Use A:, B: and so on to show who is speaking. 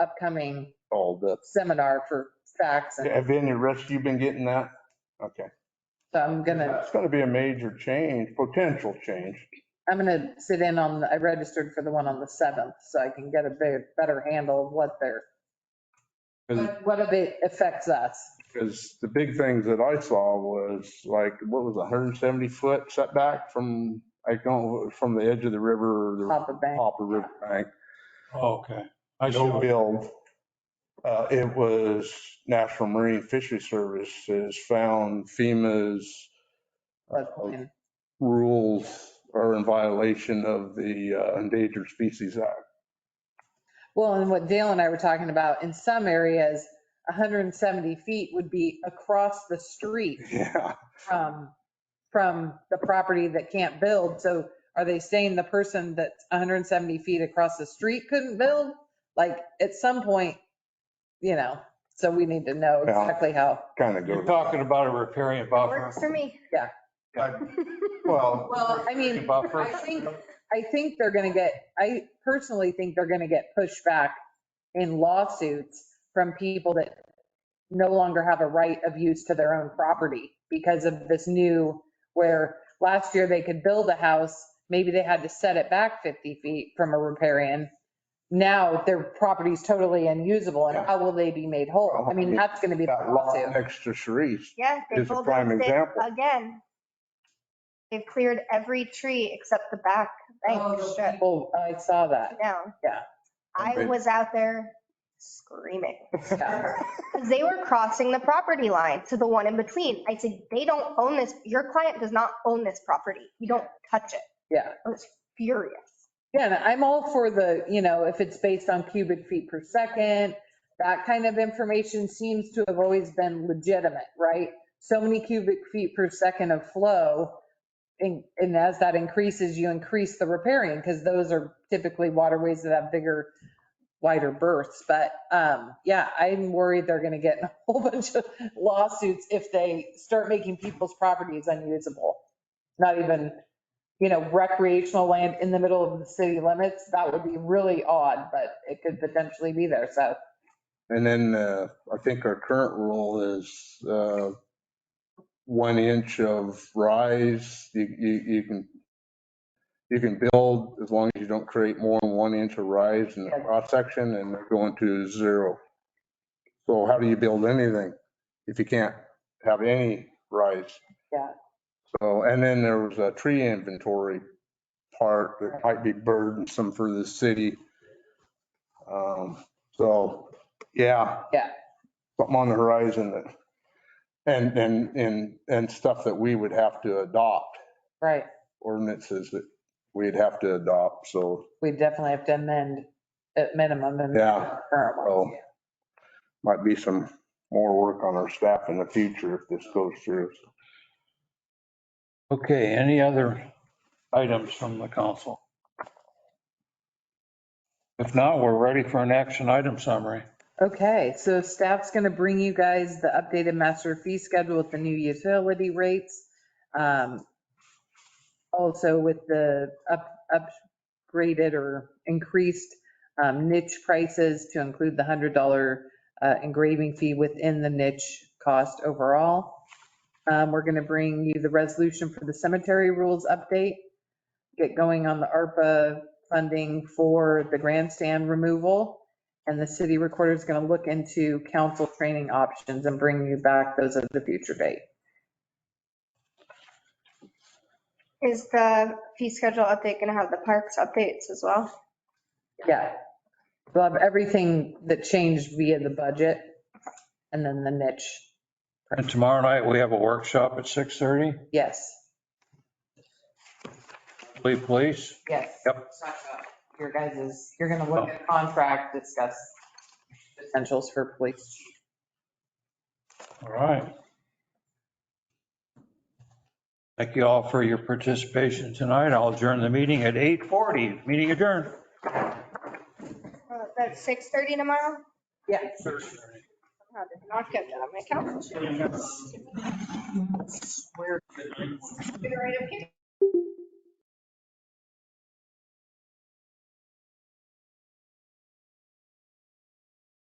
A: upcoming
B: all the,
A: seminar for facts. And
C: Have any, Rich, you been getting that? Okay.
A: so I'm gonna,
C: It's going to be a major change, potential change.
A: I'm gonna sit in on, I registered for the one on the 7th, so I can get a bit, better handle of what they're, what what if it affects us.
C: Because the big things that I saw was like, what was a hundred and seventy foot setback from, I don't, from the edge of the river or the
A: Hopper Bank.
C: Hopper River bank.
D: Okay. I
C: No
D: should,
C: build. Uh, it was National Marine Fishery Services found FEMA's uh,
A: floodplain.
C: rules are in violation of the uh, Endangered Species Act.
A: Well, and what Dale and I were talking about, in some areas, 170 feet would be across the street
C: Yeah.
A: from, from the property that can't build. So are they saying the person that's 170 feet across the street couldn't build? Like, at some point, you know, so we need to know
C: Yeah.
A: exactly how.
C: Kind of
D: you're
C: goes.
D: talking about a riparian buffer.
E: Works for me.
C: Well,
A: Well, I mean,
D: Buffer.
A: I think, I think they're going to get, I personally think they're going to get pushback in lawsuits from people that no longer have a right of use to their own property because of this new, where last year they could build a house, maybe they had to set it back 50 feet from a riparian. Now their property's totally unusable and how will they be made whole? I mean, that's going to be the
C: that lot
A: lawsuit.
C: next to Sharice,
E: Yeah, they
C: Here's a
E: pulled
C: prime
E: those things
C: example.
E: again. They've cleared every tree except the back bank strip
A: People, I saw that.
E: down.
A: Yeah.
E: I
C: Okay.
E: was out there screaming
A: Yeah.
E: because they were crossing the property line to the one in between. I said, they don't own this. Your client does not own this property. You don't touch it.
A: Yeah.
E: I was furious.
A: Yeah, and I'm all for the, you know, if it's based on cubic feet per second, that kind of information seems to have always been legitimate, right? So many cubic feet per second of flow. And, and as that increases, you increase the riparian because those are typically waterways that have bigger, wider berths. But, um, yeah, I'm worried they're going to get in a whole bunch of lawsuits if they start making people's properties unusable. Not even you know, recreational land in the middle of the city limits, that would be really odd, but it could potentially be there. So
C: and then uh, I think our current rule is uh, one inch of rise, you, you, you can, you can build as long as you don't create more than one inch of rise in the cross section and they're going to zero. So how do you build anything if you can't have any rise?
A: Yeah.
C: So, and then there was a tree inventory part that might be burdensome for the city. Um, So, yeah.
A: Yeah.
C: Something on the horizon that and, and, and, and stuff that we would have to adopt,
A: Right,
C: ordinances that we'd have to adopt, so
A: we definitely have to amend at minimum and
C: Yeah.
A: current ones.
C: Well, might be some more work on our staff in the future if this goes through.
D: Okay, any other items from the council? If not, we're ready for an action item summary.
A: Okay, so staff's going to bring you guys the updated master fee schedule with the new utility rates. um, Also with the up upgraded or increased um, niche prices to include the $100 uh, engraving fee within the niche cost overall. Um, We're going to bring you the resolution for the cemetery rules update. Get going on the ARPA funding for the grandstand removal. And the city recorder is going to look into council training options and bring you back those at the future date.
E: Is the fee schedule update going to have the parks updates as well?
A: Yeah. We'll have everything that changed via the budget and then the niche.
D: And tomorrow night, we have a workshop at 6:30,
A: Yes,
D: Lee Police.
A: yes.
D: Yep.
A: Talk about Your guys' you're going to look at contract, discuss potentials for police.
D: All right. Thank you all for your participation tonight. I'll adjourn the meeting at 8:40. Meeting adjourned.
E: Uh, That's 6:30 tomorrow?
A: Yeah.
E: How did I not get that on my calendar?